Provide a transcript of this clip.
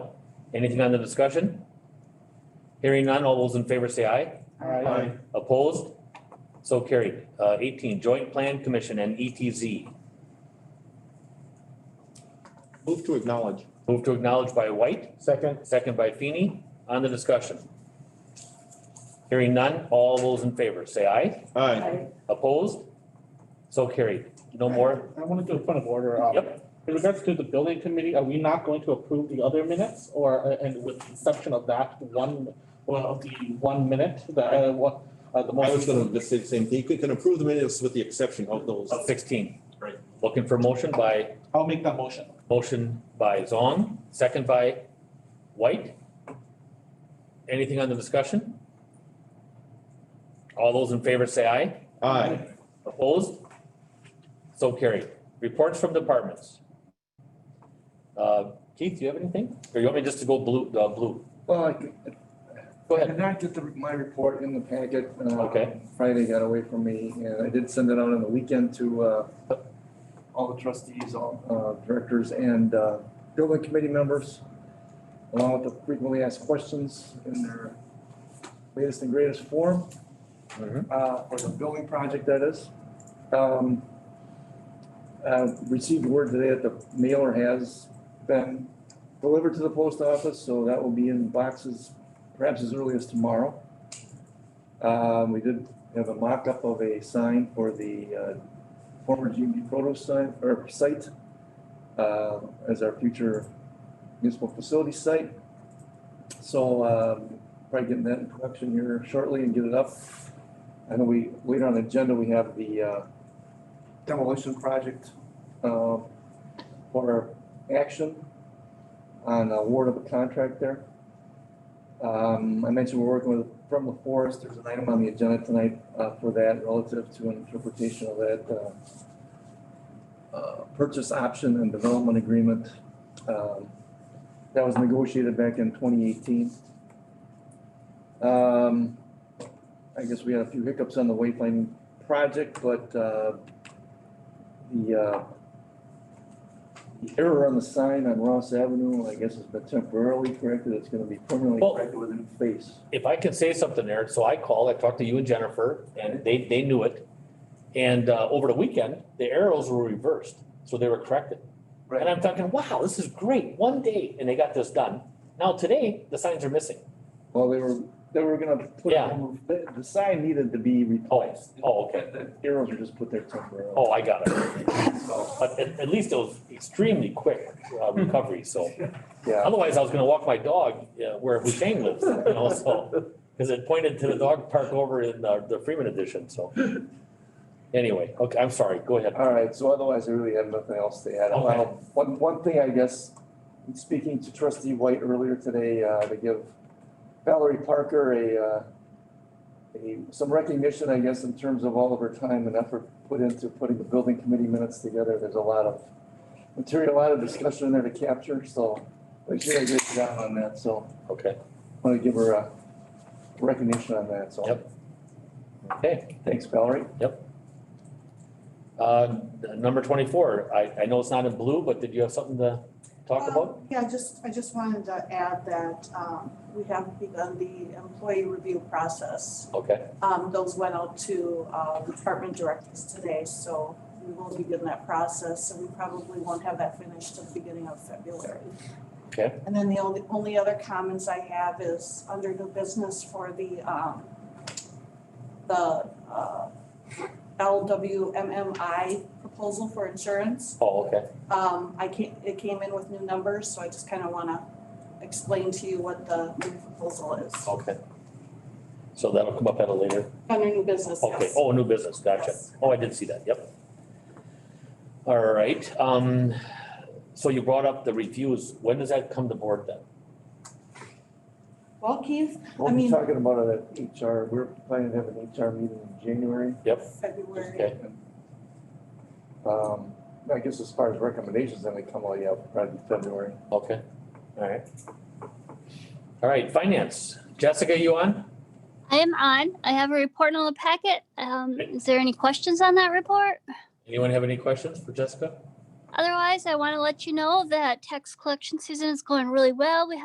Anything on the discussion? Hearing none, all those in favor say aye. Aye. Opposed? So carried. Uh, eighteen, Joint Plan Commission and E ETZ. Move to acknowledge. Move to acknowledge by White, Second. second by Feeny. On the discussion. Hearing none, all those in favor say aye. Aye. Opposed? So carried. No more? I wanted to do a point of order. um, Yep. In regards to the building committee, are we not going to approve the other minutes or, uh, and with the exception of that one, well, of the one minute, the, uh, what, uh, the I most. was gonna just say the same thing. You can approve the minutes with the exception of those. Of Sixteen. Right. Looking for motion by I'll make that motion. Motion by Zong, second by White. Anything on the discussion? All those in favor say aye. Aye. Opposed? So carried. Reports from departments. Uh, Keith, do you have anything? Or you want me just to go blue, uh, blue? Well, I could- Go I ahead. did not get the- my report in the packet. uh, Okay. Friday got away from me, and I did send it out on the weekend to uh, all the trustees, all uh, directors, and uh, building committee members, along with the frequently asked questions in their latest and greatest form Mhm. uh, for the building project, that is. Um, uh, Received word today that the mailer has been delivered to the post office, so that will be in boxes perhaps as early as tomorrow. Um, We did have a mock-up of a sign for the uh, former GMP Proto sign, or site, uh, as our future municipal facility site. So um, probably getting that in production here shortly and get it up. I know we, later on the agenda, we have the uh, demolition project uh, for action on award of a contract there. Um, I mentioned we're working with, from La Forest, there's an item on the agenda tonight uh, for that relative to an interpretation of that uh, uh, purchase option and development agreement um, that was negotiated back in 2018. Um, I guess we had a few hiccups on the wayfinding project, but uh, the uh, the error on the sign on Ross Avenue, I guess, has been temporarily corrected. It's going to be permanently Well- corrected with a new face. if I can say something there, so I called, I talked to you and Jennifer, and they, they knew it. And uh, over the weekend, the arrows were reversed, so they were corrected. And I'm thinking, wow, this is great, one day, and they got this done. Now today, the signs are missing. Well, they were, they were going to put, Yeah. the the sign needed to be Oh, replaced. oh, okay, The arrows were just put there temporarily. oh, I got it. But at, at least it was extremely quick uh, recovery, so. Yeah. Otherwise, I was gonna walk my dog uh, where Husheng lives, you know, so, because it pointed to the dog park over in uh, the Freeman Edition, so. Anyway, okay, I'm sorry, go ahead. All right, so otherwise I really have nothing else to add. Okay. Well, One, one thing I guess, in speaking to trustee White earlier today, uh, to give Valerie Parker a, uh, a, some recognition, I guess, in terms of all of her time and effort put into putting the building committee minutes together. There's a lot of material, a lot of discussion in there to capture, so we did a good job on that, so Okay, I want to give her a recognition on that, so. Yep. okay. Thanks, Valerie. Uh, number twenty-four, I, I know it's not in blue, but did you have something to talk Um, about? Yeah, just, I just wanted to add that um, we have begun the employee review process. Okay, Um, Those went out to uh, department directors today, so we will begin that process. And we probably won't have that finished till the beginning of February. Okay. And then the only, only other comments I have is under new business for the, um, the uh, LWMMI proposal for insurance. oh, okay, Um, I came, it came in with new numbers, so I just kind of want to explain to you what the new proposal is. okay. So that'll come up at a later, Under new business, okay, yes. oh, new business, gotcha, Yes. oh, I did see that, yep. All right, um, so you brought up the reviews, when does that come to board then? Well, Keith, We'll I be mean- talking about it at HR. We're planning to have an HR meeting in January. February, Okay, Um, I guess as far as recommendations, then they come all, yeah, probably February. okay, all right. All right, finance, Jessica, you on? I am on. I have a report in the packet. Um, is there any questions on that report? Anyone have any questions for Jessica? Otherwise, I want to let you know that tax collection season is going really well. We